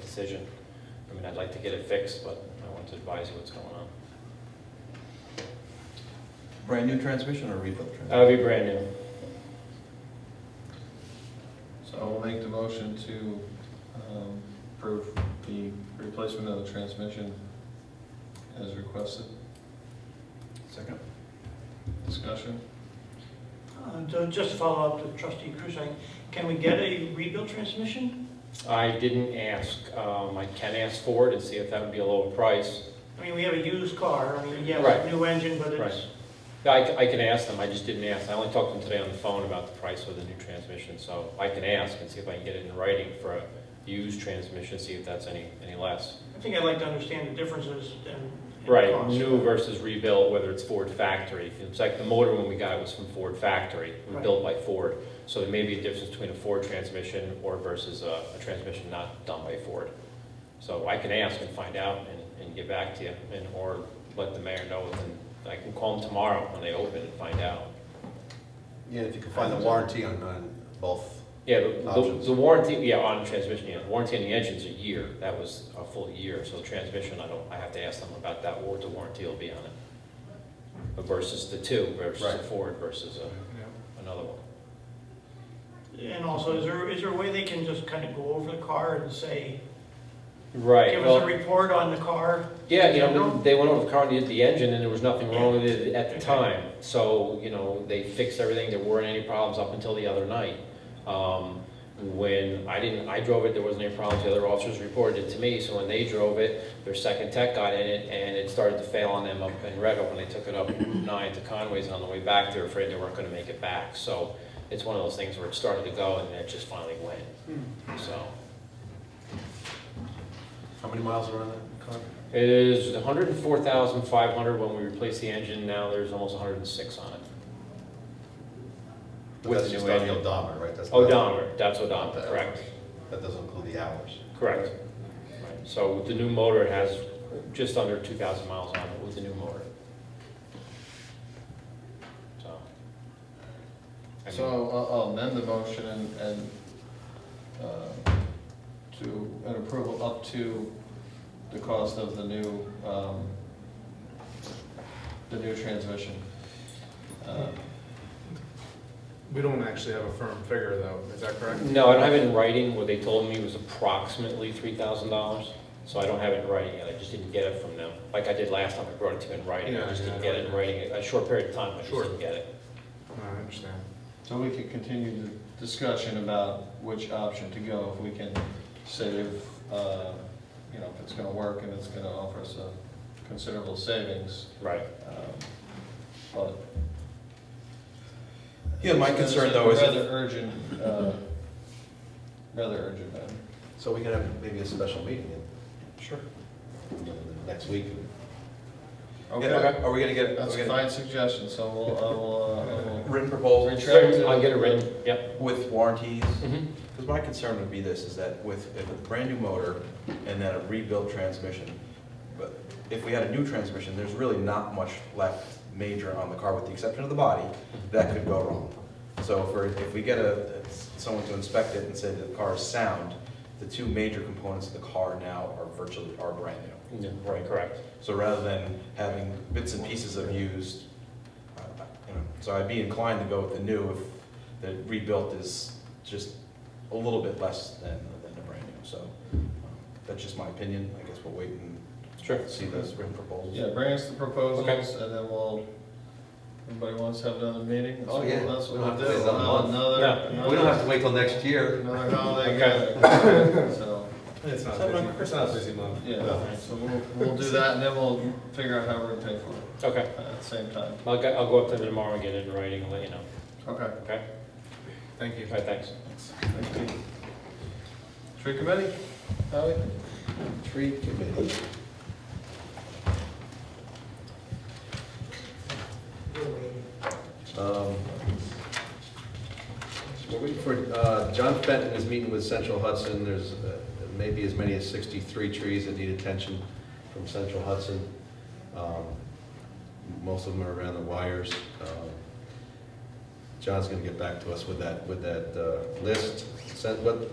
decision. I mean, I'd like to get it fixed, but I want to advise you what's going on. Brand new transmission or rebuilt transmission? That would be brand new. So I'll make the motion to um, approve the replacement of the transmission as requested. Second? Discussion? Uh, to- Just to follow up to trustee Krusek, can we get a rebuilt transmission? I didn't ask, um, I can ask Ford and see if that would be a lower price. I mean, we have a used car, I mean, yes, Right. a new engine, but Right. it's, Yeah, I, c- I can ask them, I just didn't ask, I only talked to them today on the phone about the price of the new transmission, so I can ask and see if I can get it in writing for a used transmission, see if that's any, any less. I think I'd like to understand the differences and. and Right, costs. new versus rebuilt, whether it's Ford factory. It's like the motor when we got it was from Ford factory, it was Right. built by Ford. So there may be a difference between a Ford transmission or versus a, a transmission not done by Ford. So I can ask and find out and, and get back to you and, or let the mayor know within, I can call them tomorrow when they open and find out. Yeah, if you can find the warranty on, on both. Yeah, the- the, Options. the warranty, yeah, on transmission, yeah, warranty on the engine's a year, that was a full year, so the transmission, I don't, I have to ask them about that, what the warranty will be on it. But Versus the two, versus a Right. Ford versus a, another one. And also, is there, is there a way they can just kind of go over the car and say, Right, give us a well, report on the car? yeah, you general? know, they went over the car and did the engine, and there was nothing wrong with it at the Okay. time, so, you know, they fixed everything, there weren't any problems up until the other night. Um, when I didn't, I drove it, there wasn't any problems, the other officers reported it to me, so when they drove it, their second tech got in it, and it started to fail on them up in Red Hook, and they took it up Route nine to Conway's, and on the way back, they were afraid they weren't gonna make it back, so it's one of those things where it started to go, and it just finally went, Hmm. so. How many miles are on that car? It is hundred and four thousand five hundred when we replace the engine, now there's almost hundred and six on it. With That's the just new on the engine. Oh, odometer, right? That's not- Odometer, that's odometer, correct, That doesn't include the hours. correct. Right. So with the new motor, it has just under two thousand miles on it with the new motor. So. I So mean, I'll- I'll amend the motion and, and uh, to, an approval up to the cost of the new, um, the new transmission. Uh, We don't actually have a firm figure though, is that correct? Uh, No, I don't have it in writing, what they told me was approximately three thousand dollars, so I don't have it in writing yet, I just didn't get it from them. Like I did last time, I brought it to you in writing, I Yeah, just didn't yeah. get it in writing, a short period of time, I just Sure. didn't get it. No, I understand. So we could continue the discussion about which option to go, if we can save, uh, you know, if it's gonna work and it's gonna offer us a considerable savings. Right. um, But Yeah, my concern though is, Rather if- urgent, uh, rather urgent, uh, So we can have maybe a special meeting sure. in, in the next week. Okay, Yeah, Are we gonna get, are that's we a gonna, fine suggestion, so we'll, I will, uh, I will- written proposals Retract it. I'll get it written, yep. with warranties? Mhm. Mm-hmm. Because my concern would be this, is that with, if a brand new motor and then a rebuilt transmission, but if we had a new transmission, there's really not much left major on the car, with the exception of the body, that could go wrong. So if we're, if we get a, someone to inspect it and say that the car is sound, the two major components of the car now are virtually, are brand new. Yeah, Right, correct. So rather than having bits and pieces of used, uh, you know, so I'd be inclined to go with the new if the rebuilt is just a little bit less than, than the brand new. So um, that's just my opinion. I guess we'll wait and Sure. see those written proposals. yeah, bring us the Okay. proposals, and then we'll, everybody wants to have another meeting? That's Oh, what- yeah. That's what We don't we'll have to do, wait another We'll have month. another, No. We don't another- have to wait till next year. Another holiday Okay. gathering, so, It's not Is that busy, like it's not a Christmas? busy month. yeah, so we'll, we'll do that, and then we'll figure out how we're gonna pay for it Okay. at the same time. I'll, go- I'll go up to them tomorrow and get it in writing and let you know. Okay. Okay? Thank you. All right, thanks. Tree committee, Howie? Tree committee. Um, We're waiting for, uh, John Fenton is meeting with Central Hudson, there's uh, maybe as many as 63 trees that need attention from Central Hudson. Um, Most of them are around the wires. Um, John's gonna get back to us with that, with that uh, list. Sent- What